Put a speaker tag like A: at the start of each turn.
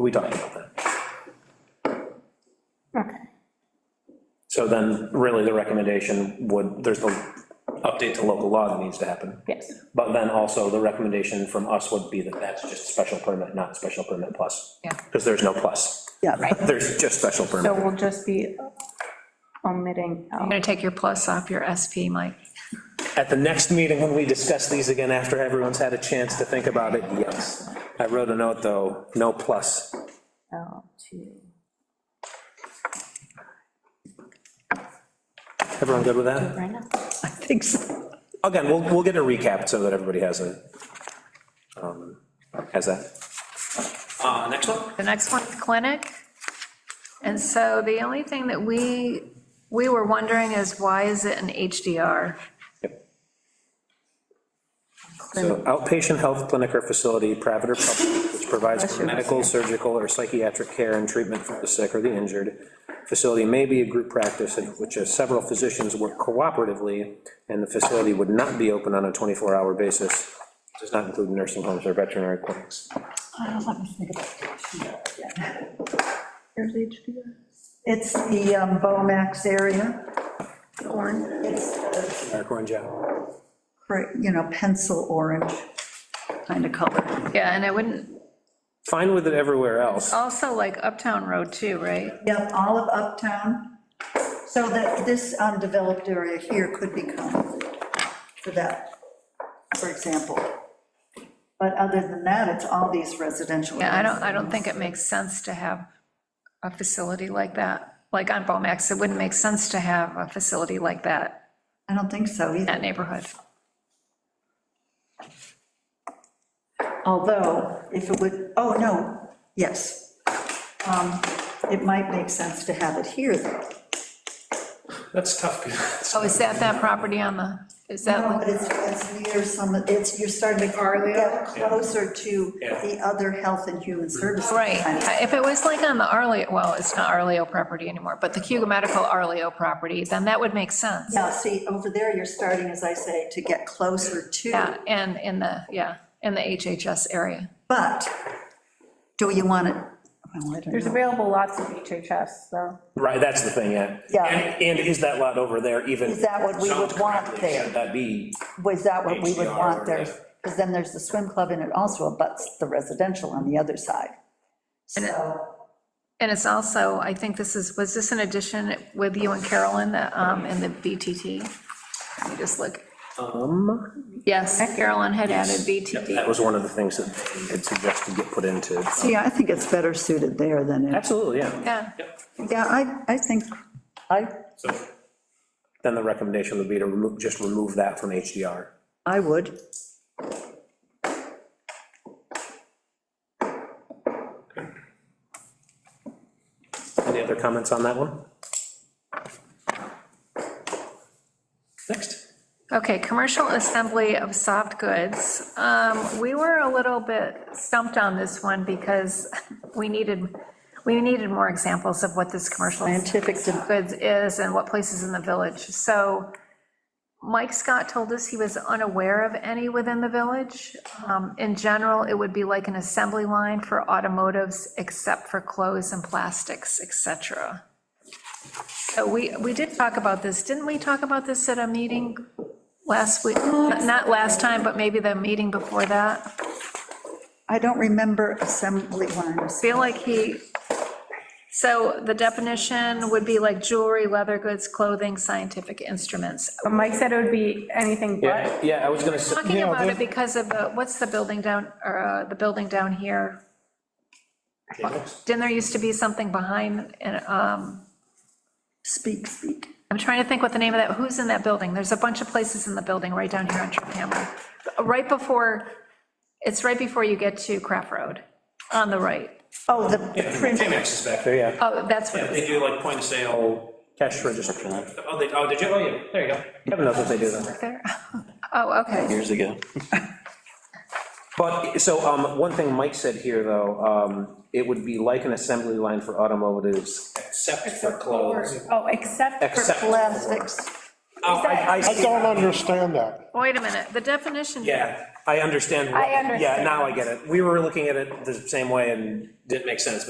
A: we talked about that.
B: Okay.
A: So then, really, the recommendation would, there's the update to local law that needs to happen.
B: Yes.
A: But then also, the recommendation from us would be that that's just special permit, not special permit plus.
C: Yeah.
A: Because there's no plus.
D: Yeah.
A: There's just special
B: So
A: permit.
B: we'll just be omitting,
C: I'm
B: L.
C: gonna take your plus off your SP, Mike.
A: At the next meeting, when we discuss these again, after everyone's had a chance to think about it, yes. I wrote a note, though, no plus.
B: L to.
A: Everyone good with that?
B: Right now.
D: I think so.
A: Again, we'll, we'll get a recap so that everybody has a, um, has that. Uh, next one?
C: The next one's clinic. And so the only thing that we, we were wondering is why is it an HDR?
A: Yep. So outpatient health clinic or facility, private or public, which provides for medical, surgical, or psychiatric care and treatment for the sick or the injured. Facility may be a group practice in which uh, several physicians work cooperatively, and the facility would not be open on a 24-hour basis, does not include nursing homes or veterinary clinics.
D: Uh, Let me think about it.
B: Here's HDR.
D: It's the um, Bomax area. Orange. It's, the
A: Eric Orange, yeah.
D: cra- you know, pencil orange kind of color.
C: Yeah, and I wouldn't,
A: Fine with it everywhere else.
C: also like Uptown Road too, right?
D: Yep, all of uptown. So that this undeveloped area here could become for that, for example. But other than that, it's all these residential.
C: Yeah, I don't,
D: areas.
C: I don't think it makes sense to have a facility like that, like on Bomax. It wouldn't make sense to have a facility like that
D: I don't think so
C: in
D: either.
C: that neighborhood.
D: Although, if it would, oh, no, yes. Um, It might make sense to have it here, though.
A: That's tough.
C: Oh, is that that property on the, is that?
D: No,
C: like-
D: But it's, it's near some, it's, you're starting to get closer to
A: Yeah. Mm-hmm.
D: the other health and human services.
C: Right, Uh,
D: kind of-
C: if it was like on the Arleo, well, it's not Arleo property anymore, but the Cuba Medical Arleo property, then that would make sense.
D: Now, see, over there, you're starting, as I say, to get closer
C: Yeah,
D: to,
C: and in the, yeah, in the HHS area.
D: but do you want it? Well, I don't
B: There's
D: know.
B: available lots of HHS, so.
A: Right, that's the thing, yeah.
E: Yeah.
A: And and is that lot over there even?
E: Is that what we would
A: zoned
E: want
A: correctly?
E: there?
A: Should that be?
E: Was that what we would
A: HDR
E: want there?
A: or-
E: Because then there's the swim club and it also abuts the residential on the other side.
C: And it-
E: So,
C: And it's also, I think this is, was this an addition with you and Carolyn, the, um, in the BTT? Let me just look.
A: Um,
C: Yes, Carolyn had added
A: that
C: BTT.
A: was one of the things that they had suggested get put into.
D: See, I think it's better suited there than, in-
A: Absolutely, yeah.
C: Yeah,
D: yeah, I, I think, I,
A: So Then the recommendation would be to remove, just remove that from HDR.
D: I would.
A: Any other comments on that one? Next.
C: okay, commercial assembly of soft goods. Um, we were a little bit stumped on this one because we needed, we needed more examples of what this commercial.
D: Scientific de-
C: goods is and what places in the village. So Mike Scott told us he was unaware of any within the village. Um, In general, it would be like an assembly line for automotives, except for clothes and plastics, et cetera. So we, we did talk about this, didn't we talk about this at a meeting last week? Not last time, but maybe the meeting before that.
D: I don't remember assembly lines.
C: Feel like he, so the definition would be like jewelry, leather goods, clothing, scientific instruments.
B: But Um, Mike said it would be anything but.
A: Yeah, yeah, I was gonna say.
C: Talking about it because of the, what's the building down, or uh, the building down here? Didn't there used to be something behind, and, um,
D: Speak, speak.
C: I'm trying to think what the name of that, who's in that building? There's a bunch of places in the building right down here on Trip Hamlin. Right before, it's right before you get to Craft Road, on the right.
D: Oh, the the print,
A: is back there, yeah.
C: Oh, that's what it was.
F: They do like point of sale.
A: Cash register.
F: Oh, they, oh, did you? Oh, yeah, there you go.
A: Kevin knows what they do then.
C: there. Oh, okay.
G: years ago.
A: But, so, um, one thing Mike said here, though, um, it would be like an assembly line for automotives.
F: Except for clothes.
B: Oh, except for,
A: Except-
D: plastics.
F: Oh, I-
A: I
H: I
A: see
H: don't understand that.
C: Wait a minute, the definition.
F: Yeah,
A: I understand. what-
B: I understand.
A: Yeah, now I get it. We were looking at it the same way and didn't make sense, but